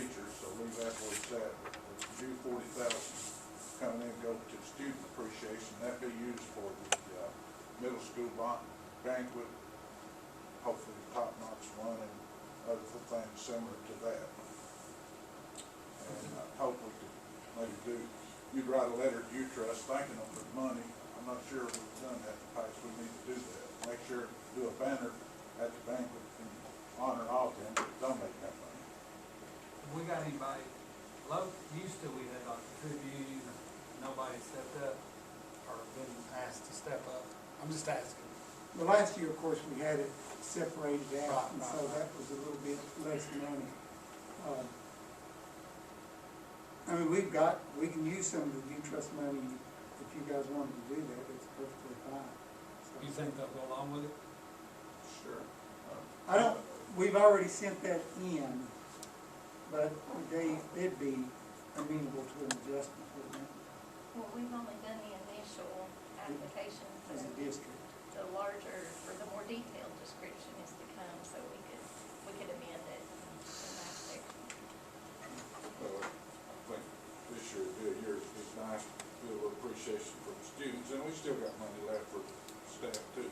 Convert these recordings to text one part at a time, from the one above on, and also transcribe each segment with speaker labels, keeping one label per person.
Speaker 1: leave that where it's at, but the due forty thousand coming in, go to student appreciation, that be used for the, uh, middle school ban- banquet, hopefully top notch one and other things similar to that. And I hope we could maybe do, you'd write a letter to you trust thanking them for the money, I'm not sure if we've done that in the past, we need to do that. Make sure, do a banner at the banquet in honor of them, that donate that money.
Speaker 2: We got anybody, low, used to we had like the Tribune, nobody stepped up or been asked to step up. I'm just asking.
Speaker 3: The last year, of course, we had it separated out,
Speaker 2: Right,
Speaker 3: and so
Speaker 2: right.
Speaker 3: that was a little bit less money. Um, I mean, we've got, we can use some of the due trust money, if you guys wanted to do that, it's perfectly fine. So-
Speaker 2: You think they'll go along with it?
Speaker 1: Sure. Um,
Speaker 3: I don't, we've already sent that in, but they, they'd be amenable to an adjustment, wouldn't it,
Speaker 4: Well, we've only done the initial application, so
Speaker 3: as a district?
Speaker 4: the larger, or the more detailed description is to come, so we could, we could amend it in that section.
Speaker 1: Well, I think uh, this year, would be a year, it's nice, to feel appreciation for the students, and we still got money left for staff too.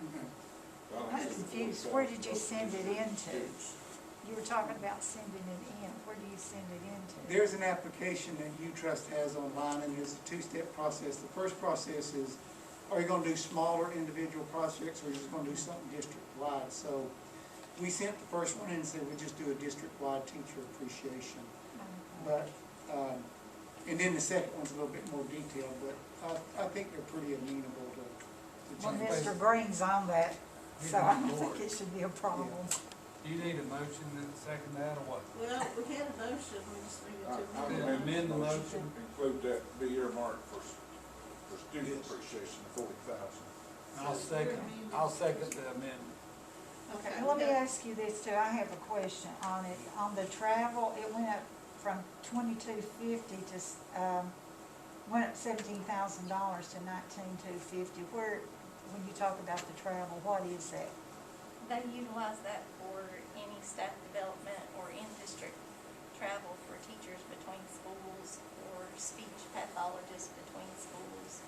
Speaker 1: I don't
Speaker 5: I'm
Speaker 1: think it's
Speaker 5: confused.
Speaker 1: $40,000
Speaker 5: Where did you
Speaker 1: for
Speaker 5: send it
Speaker 1: students.
Speaker 5: into? You were talking about sending it in. Where do you send it into?
Speaker 3: There's an application that U-Trust has online, and it's a two-step process. The first process is, are you gonna do smaller individual projects, or are you just gonna do something district-wide? So, we sent the first one in and said, we just do a district-wide teacher appreciation. But, um, and then the second one's a little bit more detailed, but I, I think they're pretty amenable to, to
Speaker 5: Well,
Speaker 3: change.
Speaker 5: Mr. Green's on that, so I don't
Speaker 2: Good lord.
Speaker 5: think it should be a problem.
Speaker 2: Do you need a motion to second that or what?
Speaker 6: Well, we had a motion, we just needed
Speaker 1: I- I
Speaker 6: to.
Speaker 1: would
Speaker 2: amend the
Speaker 1: motion to
Speaker 2: motion.
Speaker 1: Include that, be earmarked for, s- for student appreciation, forty thousand.
Speaker 2: I'll second, I'll second the amendment.
Speaker 6: Okay,
Speaker 5: Let me
Speaker 6: we got-
Speaker 5: ask you this too. I have a question on it. On the travel, it went up from twenty-two fifty to, s- um, went up seventeen thousand dollars to nineteen-two fifty. Where, when you talk about the travel, what is that?
Speaker 4: They utilize that for any staff development or in-district travel for teachers between schools or speech pathologists between schools.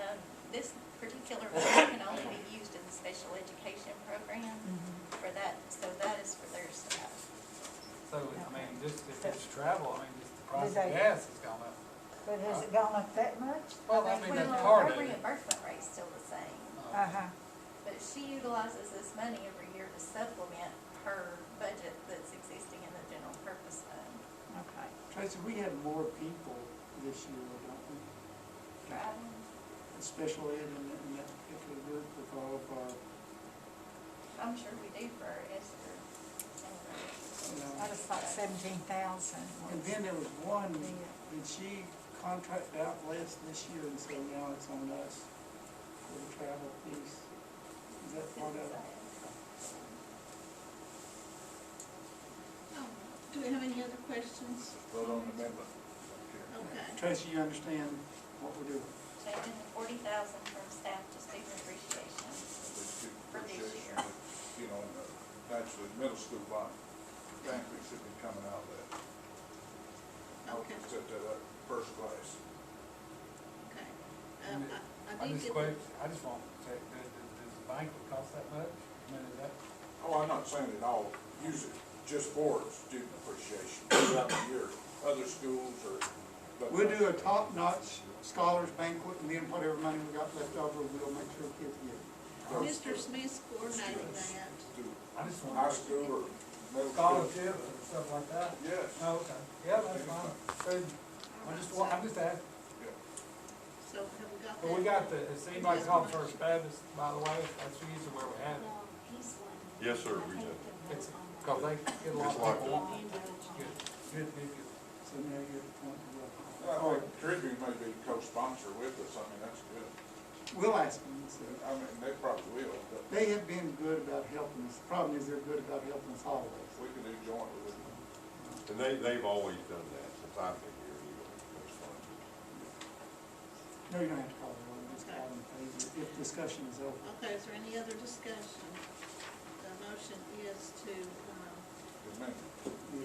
Speaker 4: Um, this particular one can only be used in the special education program for that, so that is for their staff.
Speaker 2: So, I mean, just if it's travel, I mean, just the price
Speaker 5: Did
Speaker 2: of
Speaker 5: they-
Speaker 2: gas has gone up.
Speaker 5: But has it gone up that much?
Speaker 2: Well, I mean, uh, that's
Speaker 4: Well,
Speaker 2: part of
Speaker 4: Her
Speaker 2: it.
Speaker 4: reimbursement rate's still the same,
Speaker 5: Uh-huh.
Speaker 4: but she utilizes this money every year to supplement her budget that's existing in the general purpose fund.
Speaker 5: Okay.
Speaker 3: Tracy, we had more people this year, don't we?
Speaker 4: Driving,
Speaker 3: special ed in that, in that particular group with all of our,
Speaker 4: I'm sure we do for our Esther and our.
Speaker 3: you know.
Speaker 5: I just thought seventeen thousand
Speaker 3: And
Speaker 5: was.
Speaker 3: then there was one, did she contract out less this year and so now it's on us for the travel piece? Is that part of it?
Speaker 6: Oh, Do we have any other questions?
Speaker 1: Vote on the amendment. Okay.
Speaker 6: Okay,
Speaker 3: Tracy, you understand what we're doing?
Speaker 4: Taking the forty thousand from staff to student appreciation.
Speaker 1: the student
Speaker 4: For this
Speaker 1: appreciation,
Speaker 4: year.
Speaker 1: uh, you know, and the- actually, middle school bond, banquet should be coming out of that. I would
Speaker 6: Okay.
Speaker 1: set that up first class.
Speaker 6: okay. Um, I,
Speaker 2: I
Speaker 6: I did
Speaker 2: just
Speaker 6: get,
Speaker 2: quit,
Speaker 6: the-
Speaker 2: I just want to check, does, does does the bank would cost that much? I mean, is that,
Speaker 1: Oh, I'm not saying that I'll use it just for student appreciation throughout the year, other schools or. but-
Speaker 3: We'll do a top-notch scholars banquet and then whatever money we got left over, we'll make sure kids get it.
Speaker 1: Those
Speaker 6: Mr. Smith's coordinating
Speaker 1: Students.
Speaker 6: that.
Speaker 1: do
Speaker 2: I just
Speaker 1: High
Speaker 2: want to
Speaker 1: school or middle school.
Speaker 2: scholarship and stuff like that?
Speaker 1: Yes.
Speaker 2: No, Oh, okay, yeah, that's fine. So, I just want, I'm just asking,
Speaker 1: Yeah.
Speaker 6: So have we got that?
Speaker 2: But we got the, has anybody called First Baptist, by the way, that's usually where we have it.
Speaker 7: Yes, sir, we do.
Speaker 2: It's, cause they get a lot
Speaker 7: Just like
Speaker 2: of people. Good, good, good, good.
Speaker 3: So now you're at the point where.
Speaker 1: Well, I
Speaker 3: Or,
Speaker 1: think Tribune may be co-sponsor with us, I mean, that's good.
Speaker 3: we'll ask them, and see.
Speaker 1: I mean, they probably will, but
Speaker 3: They have been good about helping us. Problem is, they're good about helping us always.
Speaker 1: we can do joint with them.
Speaker 7: And they, they've always done that since I've been here, you know, it's fun.
Speaker 3: No, you don't have to call the roll, just call them, please, if discussion is over.
Speaker 6: Okay, is there any other discussion? The motion is to, um,
Speaker 1: Good man.